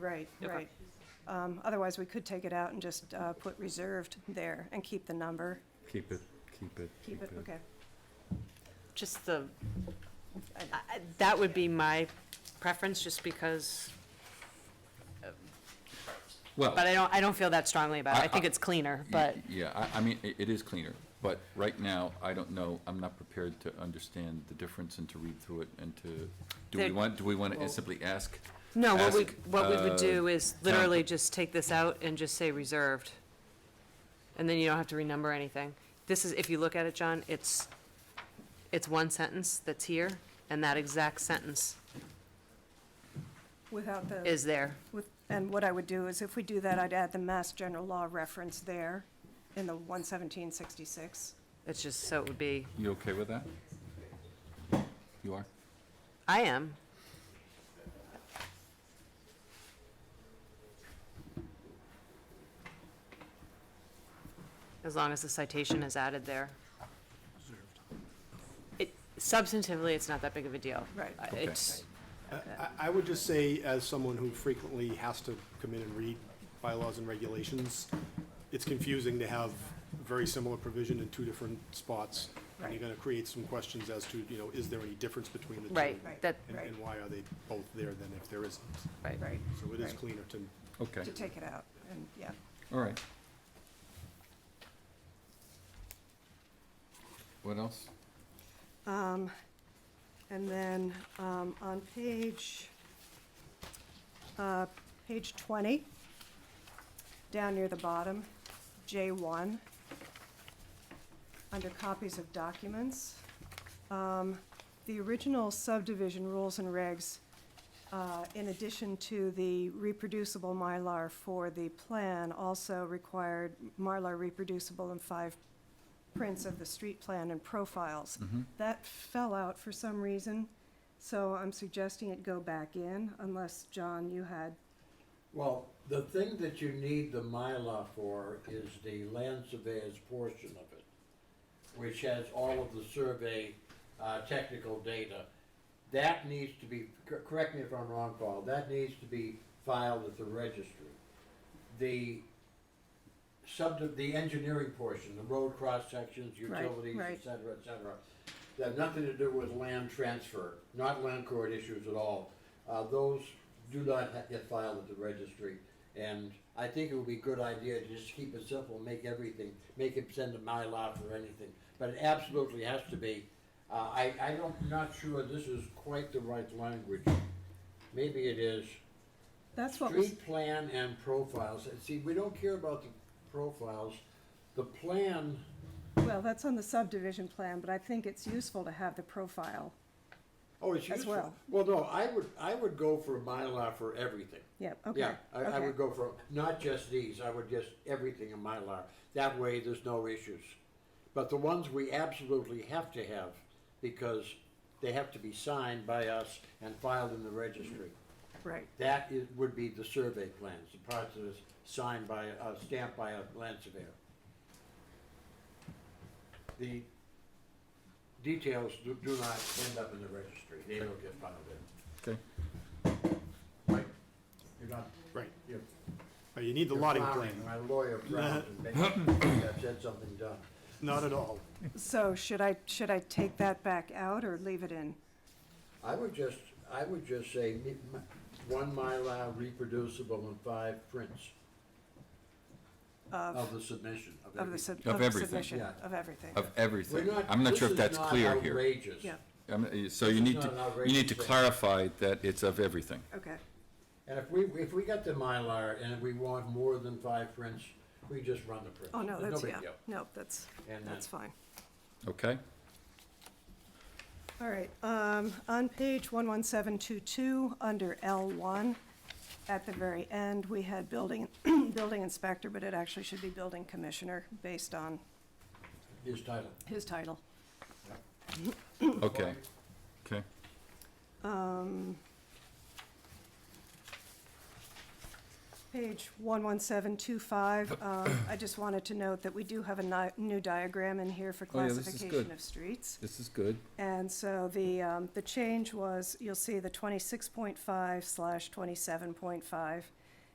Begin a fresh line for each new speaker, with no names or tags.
Right, right. Um, Otherwise, we could take it out and just uh, put reserved there and keep the number.
Keep it, keep it.
Keep it, okay.
Just the, I- I- that would be my preference, just because,
Well,
but I don't, I don't feel that strongly about it. I think
I- I-
it's cleaner,
y-
but
yeah, I, I mean, i it is cleaner, but right now, I don't know, I'm not prepared to understand the difference and to read through it and to, do we
There-
want, do we want to
well-
simply ask?
no, what we,
ask,
what we
uh,
would do is literally
Tom-
just take this out and just say reserved. And then you don't have to renumber anything. This is, if you look at it, John, it's, it's one sentence that's here, and that exact sentence
Without the,
is there.
with- and what I would do is if we do that, I'd add the Mass General Law reference there in the 11766.
It's just, so it would be,
You okay with that? You are?
I am. As long as the citation is added there. It, substantively, it's not that big of a deal.
Right.
Uh,
Okay.
It's,
I, I would just say, as someone who frequently has to come in and read bylaws and regulations, it's confusing to have very similar provision in two different spots. And you're gonna create some questions as to, you know, is there any difference between the two?
right, that,
And, and why are they both there then if there isn't?
right.
Right,
So it is
Right.
cleaner to,
Okay,
to take it out, and, yeah.
all right. What else?
Um, And then um, on page, uh, page 20, down near the bottom, J1, under copies of documents, um, the original subdivision rules and regs, uh, in addition to the reproducible Mylar for the plan, also required Mylar reproducible and five prints of the street plan and profiles.
Mm-hmm.
That fell out for some reason, so I'm suggesting it go back in unless, John, you had,
Well, the thing that you need the Mylar for is the land surveyor's portion of it, which has all of the survey, uh, technical data. That needs to be, cor- correct me if I'm wrong, Paul, that needs to be filed at the registry. The sub, the engineering portion, the road cross-sections,
Right,
utilities,
right.
et cetera, et cetera, that have nothing to do with land transfer, not land court issues at all. Uh, those do not ha- get filed at the registry. And I think it would be a good idea to just keep it simple, make everything, make it send a Mylar for anything. But it absolutely has to be. Uh, I, I don't, not sure this is quite the right language. Maybe it is.
that's what was,
Street plan and profiles. And See, we don't care about the profiles. The plan,
well, that's on the subdivision plan, but I think it's useful to have the profile.
oh, it's
As
useful.
well.
Well, no, I would, I would go for a Mylar for everything.
Yep, okay.
Yeah, I, I
okay.
would go for, not just these, I would just everything in Mylar. That way, there's no issues. But the ones we absolutely have to have, because they have to be signed by us and filed in the registry.
Right,
That is, would be the survey plans, the parts that is signed by, uh, stamped by a land surveyor. The details do, do not end up in the registry, they don't get filed in.
Okay,
Right? You're not,
right,
you're.
Uh, you need the
you're
lotting plan,
frowning. My lawyer frowned and made, that said something dumb.
not at all.
so should I, should I take that back out or leave it in?
I would just, I would just say, mi- mi- one Mylar reproducible and five prints. Of. the submission, of
Of the
everything.
sub,
Of
of the
everything.
submission,
Yeah.
of everything,
of
We're
everything. I'm not
this
sure if
is
that's
not
clear here.
outrageous.
yeah,
I'm- uh, So
This
you
is
need
not an
to, you
outrageous
need to
thing.
clarify that it's of everything.
okay,
And if we, if we got the Mylar and we want more than five prints, we just run the prints.
oh, no,
There's
that's,
big
yeah,
deal.
no, that's,
And
that's fine.
Okay?
All right, um, on page 11722, under L1, at the very end, we had building, building inspector, but it actually should be building commissioner based on
His title.
his title.
Okay, okay.
Um, Page 11725, um, I just wanted to note that we do have a ni- new diagram in here for
Oh, yeah, this is
classification
good.
of streets.
This is good.
And so the, um, the change was, you'll see the twenty-six point five slash twenty-seven point five